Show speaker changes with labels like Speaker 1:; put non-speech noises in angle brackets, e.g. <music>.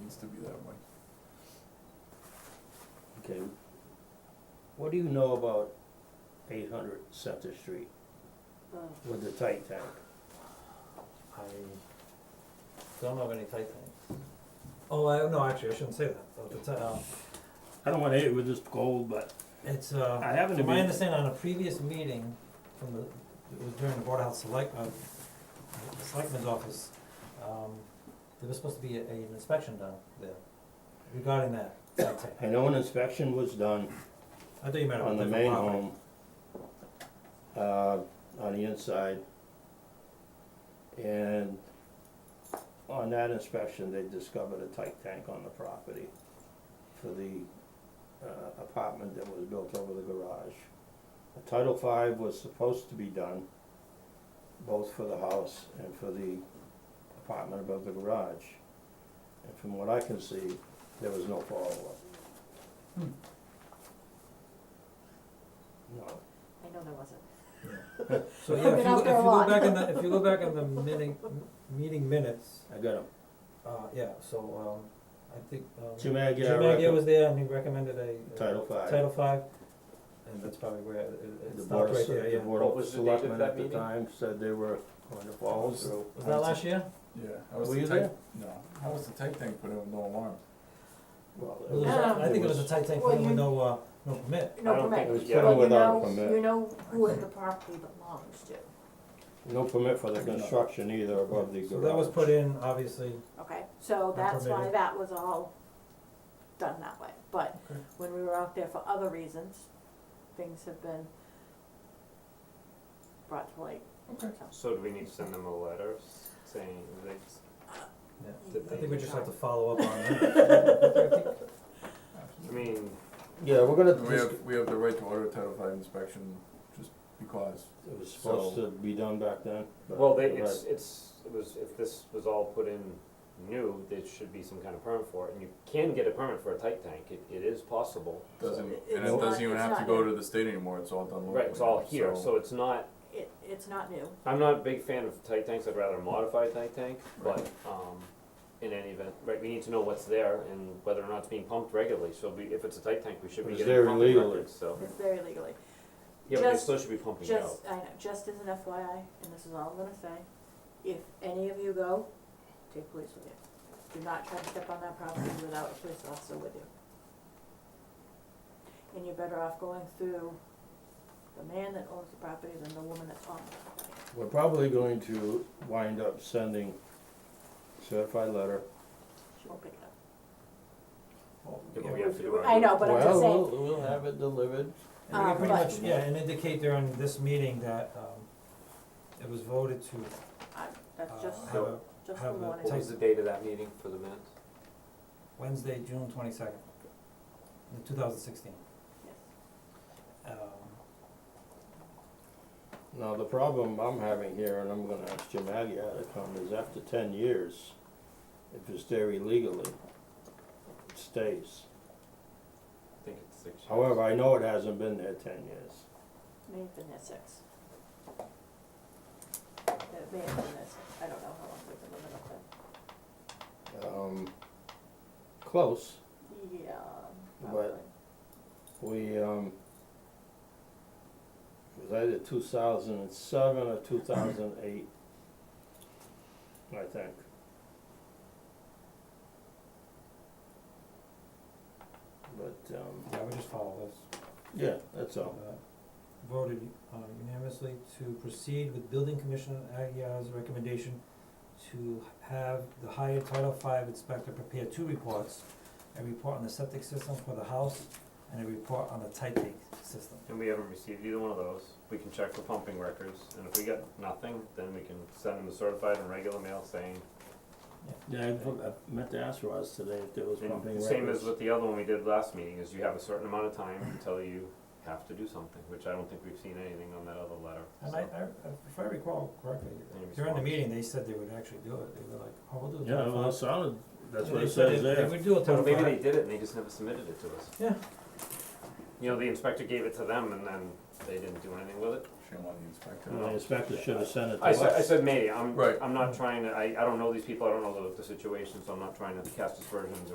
Speaker 1: needs to be that way.
Speaker 2: Okay. What do you know about eight hundred Center Street
Speaker 3: Oh,
Speaker 2: with the tight tank?
Speaker 4: I don't know of any tight things.
Speaker 5: Oh, I, no, actually, I shouldn't say that. At the ti- uh,
Speaker 2: I don't wanna hit it with this cold, but
Speaker 5: It's, uh,
Speaker 2: I happen to
Speaker 5: from my
Speaker 2: be-
Speaker 5: understanding, on a previous meeting from the, it was during the Board of Health Select, uh, the Selectmen's Office, um, there was supposed to be a, an inspection done there regarding that, that tank.
Speaker 2: I know an inspection was done
Speaker 5: I thought you meant
Speaker 2: on
Speaker 5: about
Speaker 2: the
Speaker 5: the
Speaker 2: main
Speaker 5: property.
Speaker 2: home, uh, on the inside. And on that inspection, they discovered a tight tank on the property for the, uh, apartment that was built over the garage. A Title V was supposed to be done, both for the house and for the apartment above the garage. And from what I can see, there was no follow-up.
Speaker 5: Hmm.
Speaker 2: No,
Speaker 3: I know there wasn't.
Speaker 5: So, yeah,
Speaker 3: I've
Speaker 5: if
Speaker 3: been
Speaker 5: you,
Speaker 3: out
Speaker 5: if you
Speaker 3: there a
Speaker 5: go
Speaker 3: lot.
Speaker 5: back in the, if you go back in the
Speaker 3: <laughs>
Speaker 5: meeting, m- meeting minutes,
Speaker 2: I got 'em.
Speaker 5: uh, yeah, so, um, I think, um.
Speaker 2: Jim Agia,
Speaker 5: Jim Agia was there and he recommended a. a
Speaker 2: Title five.
Speaker 5: Title five, and that's probably where it, it- it
Speaker 2: The
Speaker 5: stopped
Speaker 2: board
Speaker 5: right
Speaker 2: of,
Speaker 5: there, yeah.
Speaker 2: the board
Speaker 4: What
Speaker 2: of
Speaker 4: was the date of
Speaker 2: selectmen
Speaker 4: that
Speaker 2: at the
Speaker 4: meeting?
Speaker 2: time said they were going to follow
Speaker 1: Was-
Speaker 2: through.
Speaker 5: Was that last year?
Speaker 1: Yeah, how was
Speaker 2: Were
Speaker 1: the
Speaker 2: you
Speaker 1: tight, no, how was the tight tank put in with no alarm?
Speaker 2: Well, it
Speaker 5: It was a-
Speaker 2: was-
Speaker 3: Yeah.
Speaker 5: I think it was a tight tank
Speaker 3: Well,
Speaker 5: thing with
Speaker 3: you-
Speaker 5: no, uh, no permit.
Speaker 2: I
Speaker 3: No
Speaker 2: don't think it was
Speaker 3: permit,
Speaker 2: given
Speaker 3: so you
Speaker 2: without a
Speaker 3: know,
Speaker 2: permit.
Speaker 3: you know who the property belongs to,
Speaker 2: No permit for the construction either above the garage.
Speaker 5: So that was put in, obviously,
Speaker 3: okay? So that's why
Speaker 5: permitted.
Speaker 3: that was all done that way, but
Speaker 5: Okay.
Speaker 3: when we were out there for other reasons, things have been brought to light.
Speaker 1: Okay.
Speaker 6: So do we need to send them a letter s- saying they, s-
Speaker 5: yeah,
Speaker 6: Did
Speaker 5: I think
Speaker 6: they-
Speaker 5: we just have to follow up
Speaker 2: <laughs>
Speaker 5: on that.
Speaker 6: I mean,
Speaker 2: Yeah, we're gonna,
Speaker 1: We
Speaker 2: dis-
Speaker 1: have, we have the right to order a Title V inspection just because.
Speaker 2: it was supposed to be done back then. but
Speaker 6: well, they,
Speaker 2: the
Speaker 6: it's,
Speaker 2: red-
Speaker 6: it's, it was, if this was all put in new, there should be some kind of permit for it, and you can get a permit for a tight tank, it, it is possible. so-
Speaker 1: Doesn't,
Speaker 3: It's
Speaker 1: and it
Speaker 3: not-
Speaker 1: doesn't even
Speaker 3: it's
Speaker 1: have to
Speaker 3: not
Speaker 1: go
Speaker 3: new.
Speaker 1: to the state anymore, it's all done locally.
Speaker 6: Right, it's all
Speaker 1: now,
Speaker 6: here, so it's not,
Speaker 3: It, it's not new,
Speaker 6: I'm not a big fan of tight tanks, I'd rather modify a tight tank, but, um, in any event, right, we need to know what's there and whether or not it's being pumped regularly, so we, if it's a tight tank, we should be
Speaker 2: It's
Speaker 6: getting
Speaker 2: there
Speaker 6: pumping
Speaker 2: illegally.
Speaker 6: records, so.
Speaker 3: it's there illegally.
Speaker 6: Yeah, but they
Speaker 3: Just-
Speaker 6: still should be pumping it out.
Speaker 3: Just, I know, just as an FYI, and this is all I'm gonna say, if any of you go, take police with you. Do not try to step on that property without a police officer with you. And you're better off going through the man that owns the property than the woman that's on the property.
Speaker 2: We're probably going to wind up sending certified letter.
Speaker 3: She won't pick it up.
Speaker 2: Oh,
Speaker 6: Yeah, but we have to do our-
Speaker 3: I know, but I'm just
Speaker 2: Well,
Speaker 3: saying,
Speaker 2: we'll, we'll have it delivered.
Speaker 5: And we
Speaker 3: Um,
Speaker 5: can pretty
Speaker 3: but-
Speaker 5: much, yeah, and indicate during this meeting that, um, it was voted to,
Speaker 3: I,
Speaker 5: uh,
Speaker 3: that's just,
Speaker 5: have a,
Speaker 3: just
Speaker 5: have
Speaker 3: a
Speaker 5: a-
Speaker 3: warning.
Speaker 6: What was the date of that meeting for the minutes?
Speaker 5: Wednesday, June twenty-second, two thousand sixteen.
Speaker 3: Yes.
Speaker 5: Um,
Speaker 2: Now, the problem I'm having here, and I'm gonna ask Jim Agia to come, is after ten years, if it's there illegally, it stays.
Speaker 6: I think it's six. years.
Speaker 2: However, I know it hasn't been there ten years.
Speaker 3: May have been there six. It may have been there six, I don't know how long we've been living up
Speaker 2: Um, close,
Speaker 3: there. Yeah,
Speaker 2: But-
Speaker 3: probably.
Speaker 2: we, um, it was either two thousand and seven or two thousand and eight, I think. But, um,
Speaker 5: yeah, we just follow this.
Speaker 2: yeah, that's all.
Speaker 5: uh, voted uh, unanimously to proceed with building commissioner Aguirre's recommendation to have the hired Title V inspector prepare two reports, a report on the septic system for the house and a report on the tight tank system.
Speaker 6: And we haven't received either one of those. We can check for pumping records, and if we get nothing, then we can send them a certified and regular mail saying,
Speaker 2: Yeah, I for- I meant to ask Ross today if there was
Speaker 6: and
Speaker 2: pumping records.
Speaker 6: same as with the other one we did last meeting, is you have a certain amount of time until you have to do something, which I don't think we've seen anything on that other letter,
Speaker 5: And
Speaker 6: so.
Speaker 5: I, I, if I recall correctly,
Speaker 6: Any
Speaker 5: during the
Speaker 6: response?
Speaker 5: meeting, they said they would actually do it, they were like, oh, we'll do a
Speaker 2: Yeah,
Speaker 5: Title
Speaker 2: well, it
Speaker 5: V."
Speaker 2: sounded, that's
Speaker 5: And
Speaker 2: what
Speaker 5: they
Speaker 2: it
Speaker 5: said
Speaker 2: says
Speaker 5: they- They
Speaker 2: there.
Speaker 5: would do a
Speaker 6: Well,
Speaker 5: Title
Speaker 6: maybe they
Speaker 5: V,
Speaker 6: did it and they just never submitted it to us.
Speaker 5: Yeah.
Speaker 6: You know, the inspector gave it to them and then they didn't do anything with it.
Speaker 1: came on the inspector.
Speaker 6: Mm-hmm.
Speaker 2: And the inspector should have sent it to
Speaker 6: I said, I
Speaker 2: us.
Speaker 6: said maybe, I'm,
Speaker 1: Right.
Speaker 6: I'm not trying to, I, I don't know these people, I don't know the, the situation, so I'm not trying to cast aspersions